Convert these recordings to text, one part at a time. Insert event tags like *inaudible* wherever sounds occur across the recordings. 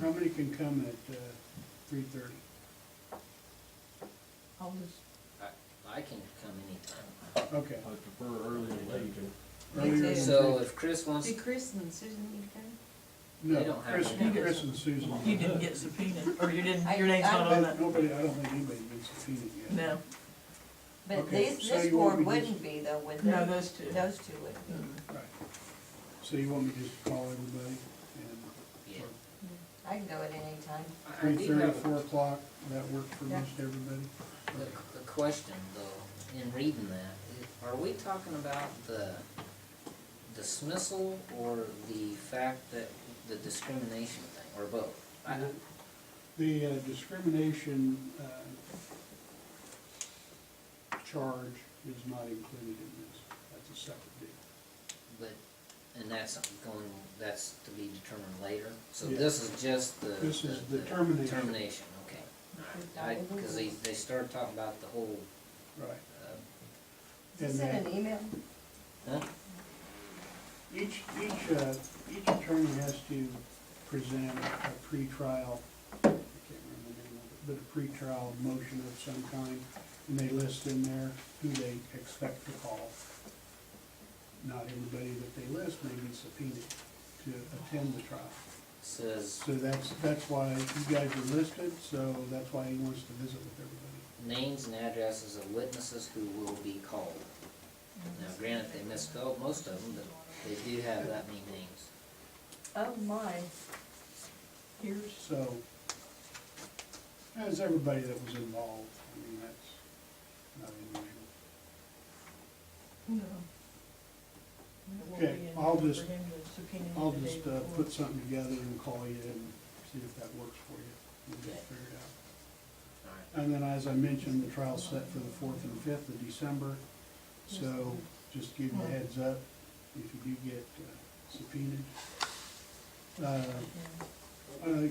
How many can come at uh, three thirty? I'll just, I, I can come anytime. Okay. I prefer early than late. Me Earlier too. than So three- if Chris wants, did Chris and Susan need to They No, don't have Chris, to have Chris it. and Susan. You didn't get subpoenaed, or you didn't, your I- name's not I- on But that. Nobody, I don't think anybody's been subpoenaed yet. No, go? But Okay, this, so this you want board me to- wouldn't be though, would they? no, those two. Those two would be. Mm. Right. So you want me to just call everybody and yeah. I can go at any time. I- I three do thirty, have four a, o'clock, that work for Yeah. most everybody? a- a question though, in reading that. Are we talking about the dismissal or the fact that, the discrimination thing, or both? I, The uh, discrimination uh, charge is not included in this. That's a separate deal. but, and that's going, that's to be determined later? So Yeah. this is just the. This is the termination. Termination, okay. I, cause they, they started talking about the whole, Right. uh, And Is this in then an email? huh? each, each, uh, each attorney has to present a pretrial, I can't remember the name of it, but a pretrial motion of some kind. And they list in there who they expect to call. Not everybody that they list may be subpoenaed to attend the trial. says So that's, that's why you guys are listed, so that's why he wants to visit with everybody. names and addresses of witnesses who will be called. Now granted, they misspelled most of them, but they do have that many names. Oh, my. Here's, So, as everybody that was involved, I mean, that's not unusual. no. Okay, I'll just- I'll I'll just, uh, put something together and call you and see if that works for you. We'll just figure it out. Alright, And then, as I mentioned, the trial's set for the fourth and fifth of December, so just give you a heads up if you do get uh, subpoenaed. Uh, uh,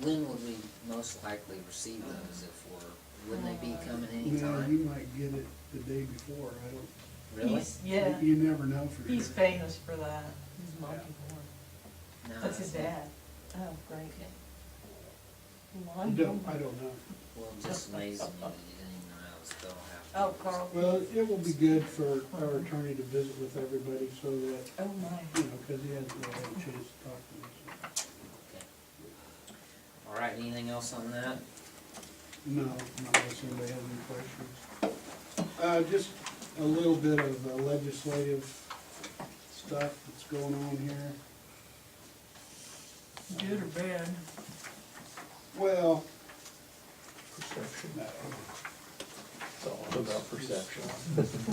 when would we most likely receive those if we're, wouldn't they be coming Now, anytime? you might get it the day before, I don't, Really? He's- Yeah, You never know for sure. he's famous for that. He's Monty No, That's his dad. Oh, great. Okay, I Monty don't, Moore. I don't know. well, it just amazes me that you didn't even know I was going to Oh, have. Carl. Well, it will be good for our attorney to visit with everybody so that, Oh, my. you know, because he hasn't really had a chance to talk to us. Alright, anything else on that? No, not unless anybody has any questions. Uh, just a little bit of uh, legislative stuff that's going on here. Good or bad? Well, Perception, no. it's all about perception.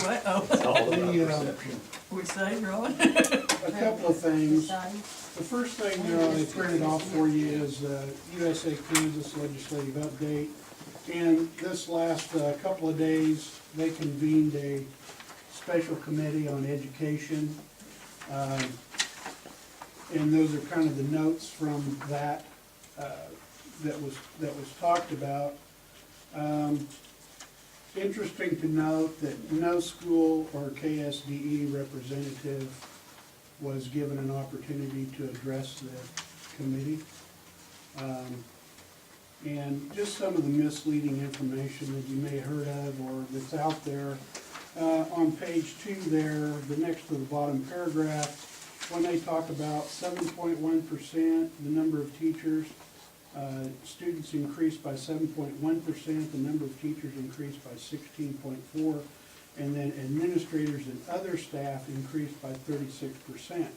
What? Oh, It's all about The, um, perception. *laughs* we say, Ron? *laughs* a couple of things. Sign. The first thing there, I printed off for you is uh, USA Kansas Legislative Update. And this last uh, couple of days, they convened a special committee on education. Um, And those are kind of the notes from that, uh, that was, that was talked about. Um, Interesting to note that no school or KSDE E representative was given an opportunity to address the committee. Um, And just some of the misleading information that you may have heard of or that's out there. Uh, On page two there, the next to the bottom paragraph, when they talk about seven point one percent, the number of teachers, uh, students increased by seven point one percent, the number of teachers increased by sixteen point four and then administrators and other staff increased by thirty-six percent.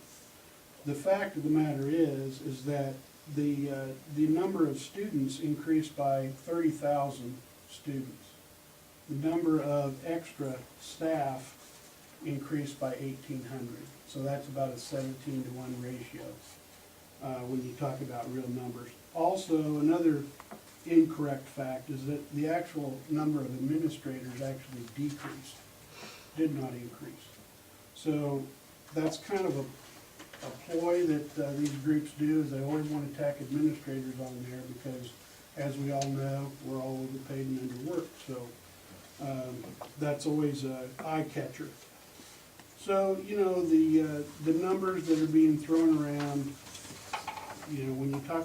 The fact of the matter is, is that the, uh, the number of students increased by thirty thousand students. The number of extra staff increased by eighteen hundred, so that's about a seventeen to one ratio, uh, when you talk about real numbers. Also, another incorrect fact is that the actual number of administrators actually decreased, did not increase. So that's kind of a, a ploy that uh, these groups do, is they always want to tack administrators on there because as we all know, we're all overpaid and underworked, so, um, that's always a eye catcher. So, you know, the, uh, the numbers that are being thrown around, you know, when you talk